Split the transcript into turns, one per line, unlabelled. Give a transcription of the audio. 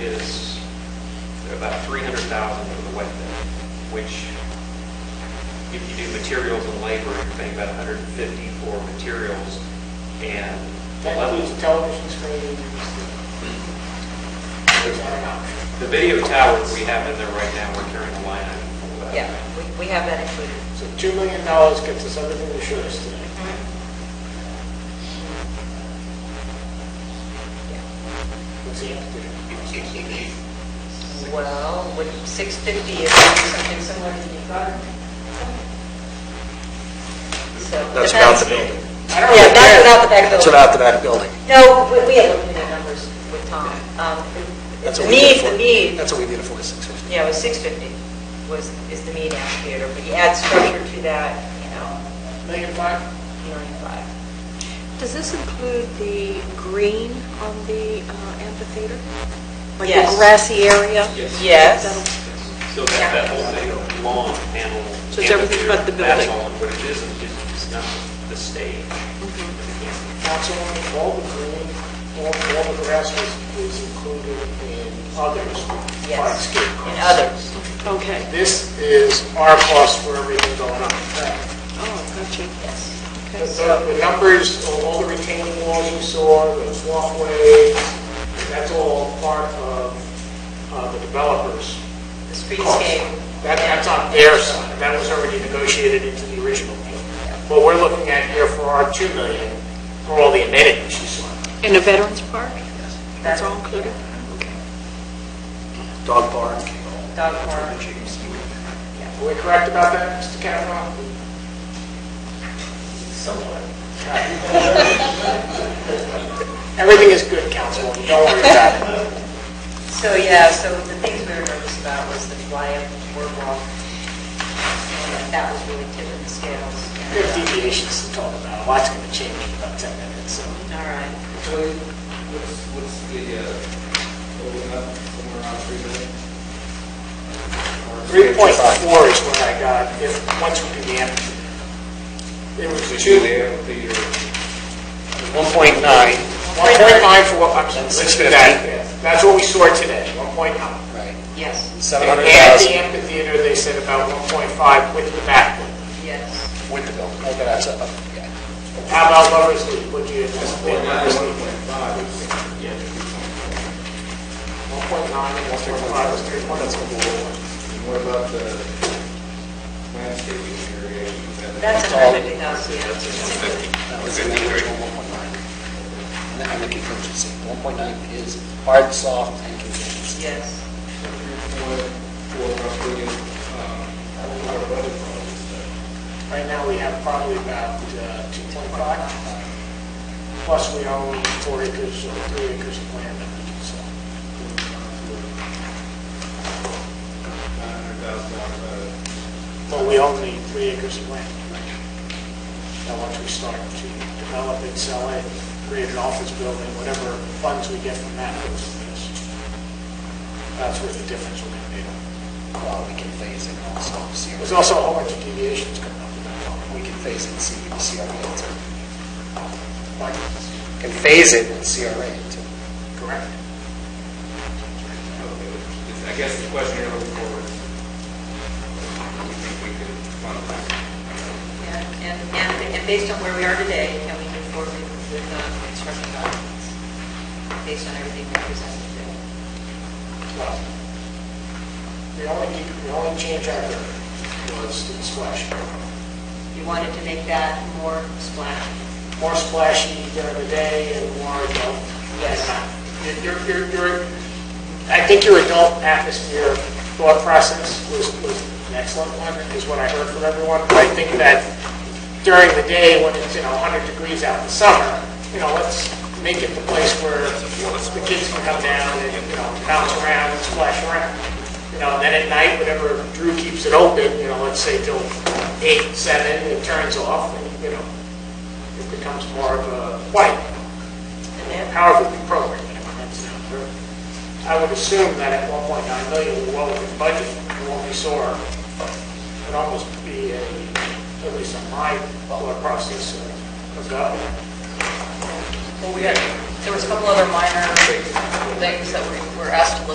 about 300,000 for the wet bid, which if you do materials and labor, you're paying about 150 for materials and
That includes television screens. Is that an option?
the video tower that we have in there right now, we're carrying a line item for that.
Yeah, we- we have that included.
So $2 million gets us everything the should us today. What's the altitude?
Yeah. Well, with 650, it would be something similar to the garden. So-
That's
but
about the building.
I don't
Yeah, that's
know.
without the back
That's
building.
about the back building.
No, we- we have looked at the numbers with Tom. Um,
That's
The
what we did
need,
for-
the need,
That's what we did for the 650.
yeah, it was 650 was, is the mean amphitheater, but you add structure to that, you know,
Million five?
million five.
Does this include the green on the uh, amphitheater? Like
Yes.
the grassy area?
Yes.
Yes.
So that, that whole thing, lawn, panel.
So it's everything but the
amphitheater, That's
building. Mm-hmm.
all, what it is, is it's not the stage. Yeah.
Councilwoman, all the green, all all the grass is- is included in others.
Yes,
Hardscape
and
costs.
others.
That'll- Okay.
This is our cost for everything going on.
Oh, gotcha.
Yes.
The- The the numbers, all the retaining walls you saw, those walkways, that's all part of uh, the developer's
The
cost.
streetscape.
That- That's on their side, that was already negotiated into the original deal. What we're looking at here for our 2 million, for all the amenities you saw.
In a veterans park? That's all included?
Dog park.
Dog park.
Are we correct about that, Mr. Kavanaugh? Somewhat. Everything is good, Councilwoman, don't worry about it.
So, yeah, so the things we were nervous about was the fly-up boardwalk. and That was really tipping the scales.
We have deviations to talk about, a lot's going to change in about 10 minutes, so.
uh, All right.
So what's, what's the, uh, holding up somewhere around three million? Or-
3.4 is what I got, if, once we do the amphitheater. It
So
was
you
2,
do the amphitheater,
1.9.
1.9 for what, I'm sorry, let's do that. Yeah, That's what we saw today, 1.9.
Right.
Yes,
And
700,000.
the amphitheater, they said about 1.5 with the back one.
yes.
With the building. Okay, that's up. Yeah.
How about Lover's Leap, would you anticipate?
point nine,
Lover's
one
Leap?
point five, it's,
1.9 and 1.5 is 3.4.
and what about the landscaping area? Is that-
That's a
all-
hundred fifty thousand, yeah.
That was in the original 1.9. And then the contingency. 1.9 is hard, and soft, and contingency.
Yes.
So three point four roughly, um, our budget probably.
Right now, we have probably about uh, 2.5, plus we own four acres or three acres of land that we can sell.
Nine hundred thousand dollars, uh,
Well, we own the three acres of land. Now, once we start to develop it, sell it, create an office building, whatever funds we get from that goes to this. That's where the difference will be made.
Well, we can phase it also. see-
There's also a whole bunch of deviations coming up with that.
We can phase it, see, see our rate too.
Mike,
Can phase it and see our rate too.
correct?
it's- uh, I guess the question you're looking for is, we think we could fund that.
And, and, and and based on where we are today, can we move forward with with, uh, construction documents? Based on everything we presented today?
Well, The only, the only change I heard was to the splash.
You wanted to make that more splashy?
More splashy during the day and more adult.
Yes.
Your, your, your, I think your adult atmosphere thought process was, was an excellent one, is what I heard from everyone. But I think that during the day, when it's, you know, 100 degrees out in the summer, you know, let's make it the place where the kids can come down and, you know, bounce around and splash around. You know, and then at night, whenever Drew keeps it open, you know, let's say till 8, 7, it turns off, and, you know, it becomes more of a white however we program it. that's not true. I would assume that at 1.9 million, we're well within budget, and what we saw would almost be, a at least on my thought process, uh, a- a go.
Well, we had, there was a couple other minor things that we were asked to look